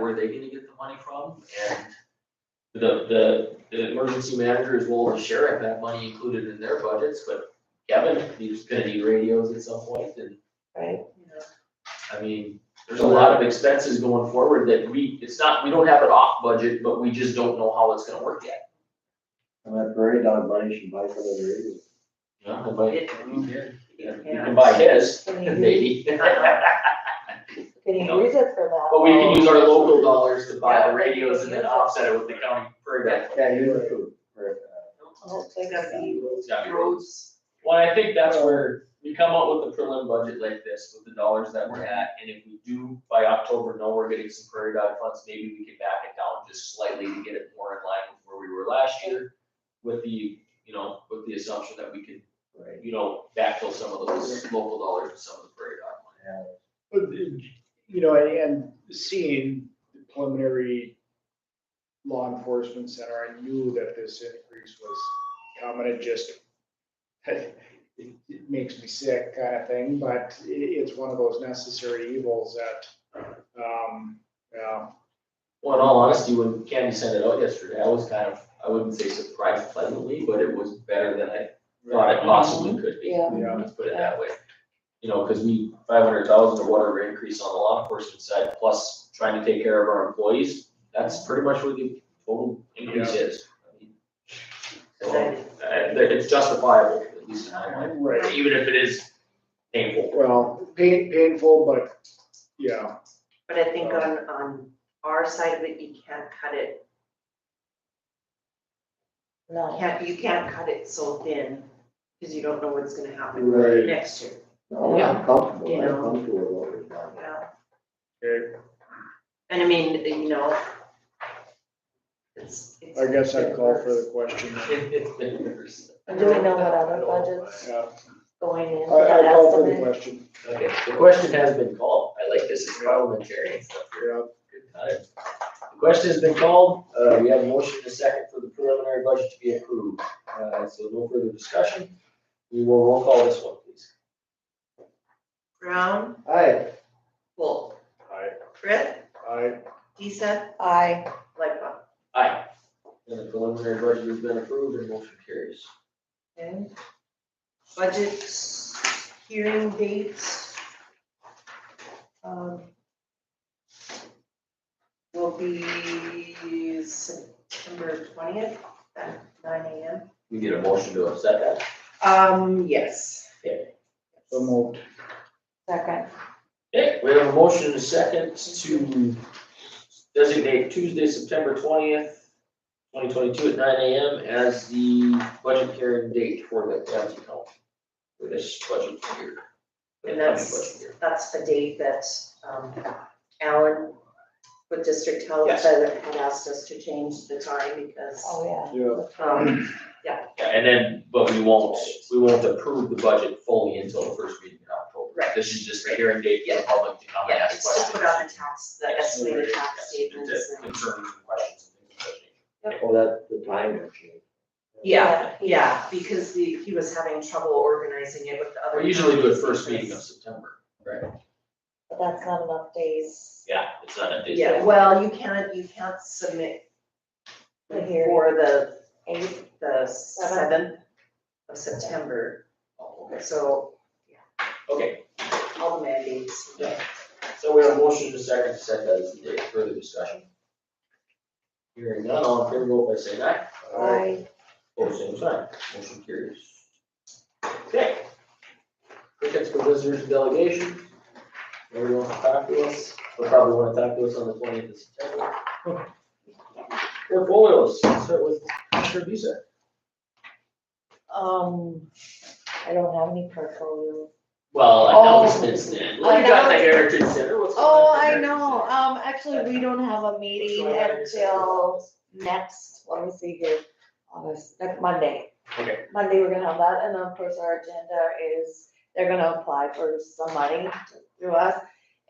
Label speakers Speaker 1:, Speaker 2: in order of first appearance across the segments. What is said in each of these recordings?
Speaker 1: where are they gonna get the money from? And the, the, the emergency manager as well as sheriff have money included in their budgets, but Kevin, he's gonna need radios at some point and
Speaker 2: right?
Speaker 1: I mean, there's a lot of expenses going forward that we, it's not, we don't have it off budget, but we just don't know how it's gonna work yet.
Speaker 3: And that prairie dog money should buy for the radio.
Speaker 1: Yeah, but
Speaker 2: It-
Speaker 1: you can buy his, maybe.
Speaker 2: Can you use it for that?
Speaker 1: But we can use our local dollars to buy the radios and then offset it with the county prairie dog.
Speaker 3: Yeah, you look uh, for, for,
Speaker 2: Oh, they gotta be
Speaker 1: It's gotta be rolled.
Speaker 2: roads.
Speaker 1: Well, I think that's where we come up with a prelim budget like this with the dollars that we're at, and if we do by October know we're getting some prairie dog funds, maybe we can back it down just slightly to get it more in line with where we were last year. With the, you know, with the assumption that we could,
Speaker 3: uh, right,
Speaker 1: you know, backfill some of those local dollars with some of the prairie dog money.
Speaker 3: yeah.
Speaker 4: But, you know, and, and seeing the preliminary law enforcement center, I knew that this increase was coming, it just, it, it makes me sick kind of thing, but i- it's one of those necessary evils that, um, yeah,
Speaker 1: Well, in all honesty, when Candy sent it out yesterday, I was kind of, I wouldn't say surprised pleasantly, but it was better than I thought it
Speaker 5: Mm-hmm.
Speaker 1: possibly could be.
Speaker 2: Yeah.
Speaker 4: Yeah.
Speaker 1: Let's put it that way. You know, because we, five hundred thousand or whatever increase on the law enforcement side, plus trying to take care of our employees, that's pretty much what the total increase is. So, uh, it's justifiable, at least in my mind,
Speaker 4: right,
Speaker 1: even if it is painful.
Speaker 4: well, pain, painful, but, yeah,
Speaker 2: But I think on, on our side of it, you can't cut it. No. Can't, you can't cut it so thin, because you don't know what's gonna happen
Speaker 3: Right.
Speaker 2: next year.
Speaker 3: No, I'm comfortable,
Speaker 2: Yeah.
Speaker 3: I'm comfortable with what we've done.
Speaker 2: Yeah.
Speaker 4: okay,
Speaker 2: And I mean, you know. It's. it's-
Speaker 4: I guess I'd call for the question.
Speaker 1: It's been years.
Speaker 5: And do we know what other budgets
Speaker 4: Yeah,
Speaker 5: going in
Speaker 4: I,
Speaker 5: for
Speaker 4: I
Speaker 5: that
Speaker 4: call for the
Speaker 5: estimate?
Speaker 4: question,
Speaker 1: Okay, the question has been called. I like this, it's parliamentary and stuff.
Speaker 4: yeah.
Speaker 1: Good time. The question has been called. Uh, we have a motion and a second for the preliminary budget to be approved. Uh, so no further discussion. We will roll call this one, please.
Speaker 2: Brown,
Speaker 3: Aye,
Speaker 2: Wolf,
Speaker 4: I,
Speaker 2: Brett,
Speaker 4: I,
Speaker 2: Deesa,
Speaker 5: Aye,
Speaker 2: Lightfoot.
Speaker 1: Aye. And the preliminary budget has been approved and motion carries.
Speaker 2: Okay. Budget hearing dates. um, Will be September twentieth at nine AM.
Speaker 1: We get a motion to upset that.
Speaker 2: Um, yes.
Speaker 4: so moved.
Speaker 5: second.
Speaker 1: Okay, we have a motion and a second to designate Tuesday, September twentieth, twenty twenty-two at nine AM as the budget hearing date for the county council. For this budget year. the county
Speaker 2: And that's-
Speaker 1: budget year.
Speaker 2: That's the date that um, Alan with District Health
Speaker 1: Yes.
Speaker 2: said had asked us to change the time because.
Speaker 5: Oh,
Speaker 4: Yeah,
Speaker 2: um,
Speaker 1: Yeah, and then, but we won't, we won't approve the budget fully until the first meeting in October.
Speaker 2: Right.
Speaker 1: This is just a hearing date for the public to come and
Speaker 2: Yeah,
Speaker 1: ask
Speaker 2: it's to
Speaker 1: questions.
Speaker 2: put on the tax, the estimated tax
Speaker 1: Yes,
Speaker 2: statements.
Speaker 1: to-
Speaker 2: and-
Speaker 1: Concerns and questions. and things of that nature.
Speaker 3: oh, that's the time, actually.
Speaker 2: Yeah, yeah, because the, he was having trouble organizing it with the other.
Speaker 1: We usually do it first meeting of September. Right.
Speaker 5: But that's not enough days
Speaker 1: Yeah, it's not a date.
Speaker 2: Yeah, well, you can't, you can't submit
Speaker 5: to hear
Speaker 2: for the,
Speaker 5: eight.
Speaker 2: the seventh of September,
Speaker 1: Oh, okay.
Speaker 2: so
Speaker 1: Okay,
Speaker 2: all the mandates.
Speaker 1: Yeah. So we have a motion to second, to set that as the date, further discussion. Hearing none, all in favor, vote by saying aye.
Speaker 5: Aye,
Speaker 1: Pose same sign, motion carries. Okay. Tickets for visitors and delegation. Nobody wants to talk to us, they'll probably wanna talk to us on the twentieth of September. Portfolios, start with Mr. Visa.
Speaker 5: um, I don't have any portfolio.
Speaker 1: Well,
Speaker 5: I know it's been
Speaker 1: then,
Speaker 5: Look, you got the
Speaker 1: Heritage Center, what's
Speaker 5: Oh, I know, um, actually, we don't have a meeting until next, let me see here, August, next Monday.
Speaker 1: Okay.
Speaker 5: Monday, we're gonna have that, and then of course, our agenda is, they're gonna apply for some money through us,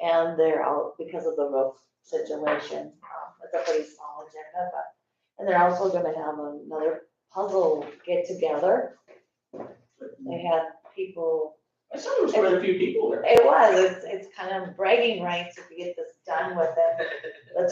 Speaker 5: and they're out because of the roof situation, um, it's a pretty small agenda, but, and they're also gonna have another puzzle get together. They had people
Speaker 1: I saw there was quite a few people there.
Speaker 5: it was, it's, it's kind of bragging rights if you get this done with it.